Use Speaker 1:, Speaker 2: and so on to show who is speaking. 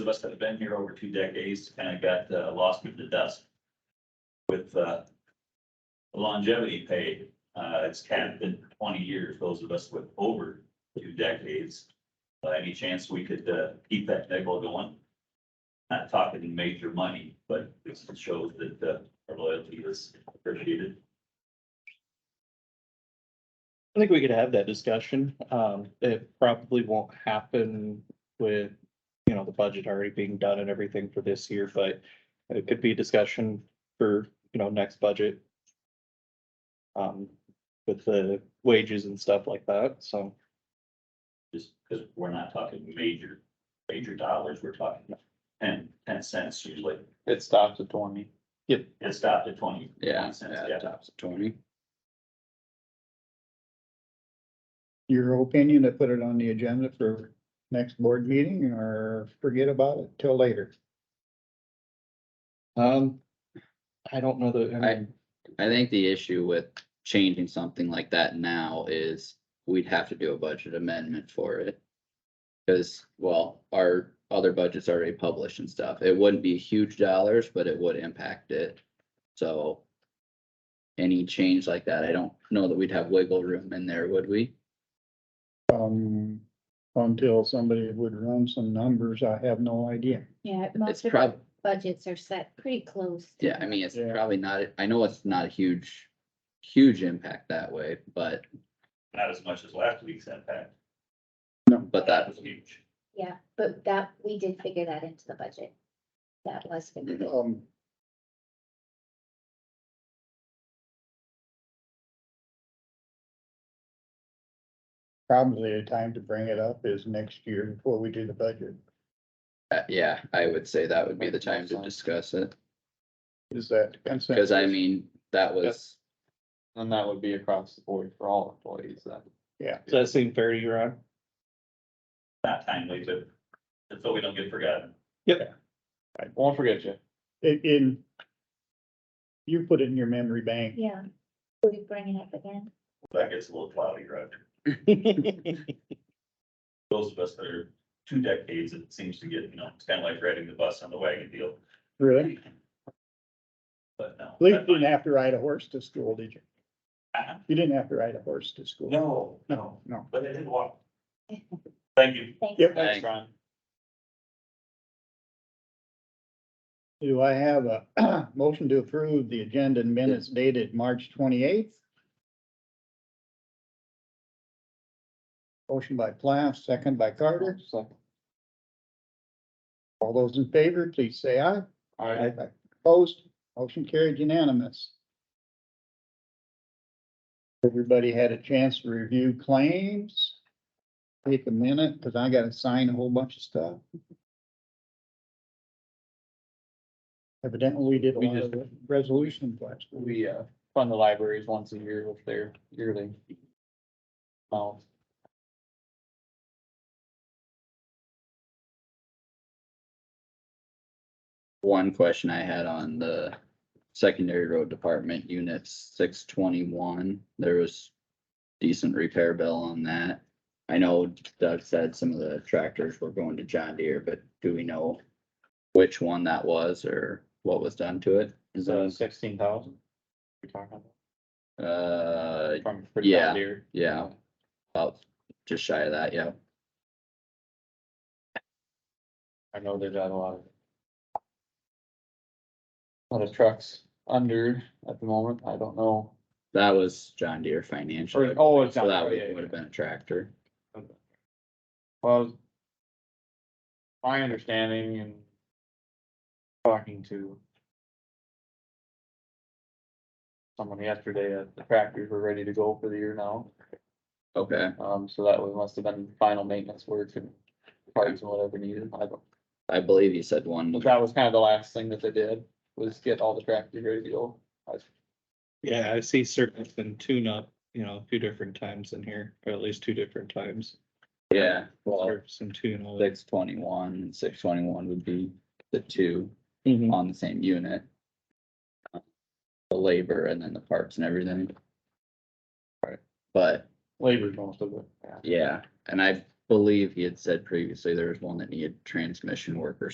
Speaker 1: of us that have been here over two decades kind of got uh, lost in the dust with uh, longevity pay. Uh, It's kind of been twenty years, those of us with over two decades. Uh, Any chance we could uh, keep that nickel going? Not talking major money, but it shows that uh, our loyalty is appreciated.
Speaker 2: I think we could have that discussion. Um, it probably won't happen with, you know, the budget already being done and everything for this year, but it could be a discussion for, you know, next budget. Um, with the wages and stuff like that, so,
Speaker 1: just because we're not talking major, major dollars, we're talking ten, ten cents usually.
Speaker 3: It stops at twenty.
Speaker 1: It stopped at twenty. cents,
Speaker 3: It stops at twenty.
Speaker 4: your opinion to put it on the agenda for next board meeting or forget about it till later?
Speaker 2: um. I don't know that, I mean,
Speaker 3: I think the issue with changing something like that now is we'd have to do a budget amendment for it. Cause, well, our other budget's already published and stuff. It wouldn't be huge dollars, but it would impact it. So any change like that, I don't know that we'd have wiggle room in there, would we?
Speaker 4: Um, until somebody would run some numbers, I have no idea.
Speaker 5: Yeah,
Speaker 3: It's
Speaker 5: most of
Speaker 3: prob,
Speaker 5: our budgets are set pretty close. to
Speaker 3: yeah, I mean, it's
Speaker 4: Yeah.
Speaker 3: probably not, I know it's not a huge, huge impact that way, but
Speaker 1: Not as much as last week's impact.
Speaker 3: But that,
Speaker 1: was huge.
Speaker 5: Yeah, but that, we did figure that into the budget. That was
Speaker 3: Mm-hmm.
Speaker 5: figured. in.
Speaker 4: Um. Probably a time to bring it up is next year before we do the budget.
Speaker 3: uh, yeah, I would say that would be the time
Speaker 6: Makes
Speaker 3: to
Speaker 6: sense.
Speaker 3: discuss it,
Speaker 4: Is that consensus?
Speaker 3: because I mean, that was,
Speaker 6: And that would be across the board for all employees then.
Speaker 2: does that seem fair to you, Ron?
Speaker 1: Not timely, but and so we don't get forgotten.
Speaker 6: I won't forget you.
Speaker 4: In- in. You put it in your memory bank.
Speaker 5: Yeah, will you bring it up again?
Speaker 1: That gets a little cloudy, Roger. Those of us that are two decades, it seems to get, you know, it's kind of like riding the bus on the wagon deal,
Speaker 4: Really?
Speaker 1: but no.
Speaker 4: At least you didn't have to ride a horse to school, did you?
Speaker 1: Uh-uh.
Speaker 4: You didn't have to ride a horse to school.
Speaker 1: No, no,
Speaker 4: No.
Speaker 1: but I did walk. Thank you.
Speaker 5: Thanks.
Speaker 4: Yep.
Speaker 3: Thanks.
Speaker 6: Ron.
Speaker 4: Do I have a motion to approve the agenda and minutes dated March twenty-eighth? Motion by Plath, second by Carter.
Speaker 6: Second.
Speaker 4: All those in favor, please say aye.
Speaker 6: All right,
Speaker 4: Aye. Opposed, motion carried unanimous. Everybody had a chance to review claims. Take a minute, because I gotta sign a whole bunch of stuff. Evidently, we did a
Speaker 6: We
Speaker 4: lot of resolution last week.
Speaker 6: we uh fund the libraries once a year with their yearly. amount.
Speaker 3: one question I had on the secondary road department unit six twenty-one, there was decent repair bill on that. I know Doug said some of the tractors were going to John Deere, but do we know which one that was or what was done to it? Is
Speaker 6: So
Speaker 3: that,
Speaker 6: sixteen thousand? We're talking
Speaker 3: uh,
Speaker 6: about from for John
Speaker 3: Yeah.
Speaker 6: Deere.
Speaker 3: yeah, about just shy of that, yeah.
Speaker 6: I know they've got a lot of. Lot of trucks under at the moment. I don't know.
Speaker 3: That was John Deere financial.
Speaker 6: Or- oh, it's
Speaker 3: So
Speaker 6: John
Speaker 3: that
Speaker 6: Deere, yeah,
Speaker 3: would
Speaker 6: yeah.
Speaker 3: have been a tractor.
Speaker 6: Well. My understanding and. Talking to. Someone yesterday, uh, the tractors were ready to go for the year now,
Speaker 3: Okay,
Speaker 6: um, so that was- must have been final maintenance work and. Parts and whatever needed, I don't,
Speaker 3: I believe you said one.
Speaker 6: but that was kind of the last thing that they did, was get all the tractors ready to go. I-
Speaker 2: Yeah, I see certain and tune up, you know, two different times in here, or at least two different times.
Speaker 3: Yeah, well,
Speaker 2: Or Some tune. ups.
Speaker 3: six twenty-one and six twenty-one would be the two
Speaker 2: Mhm.
Speaker 3: on the same unit. Uh, The labor and then the parts and everything. Right. But,
Speaker 6: Labor's most of it, yeah.
Speaker 3: yeah, and I believe he had said previously there was one that needed transmission work or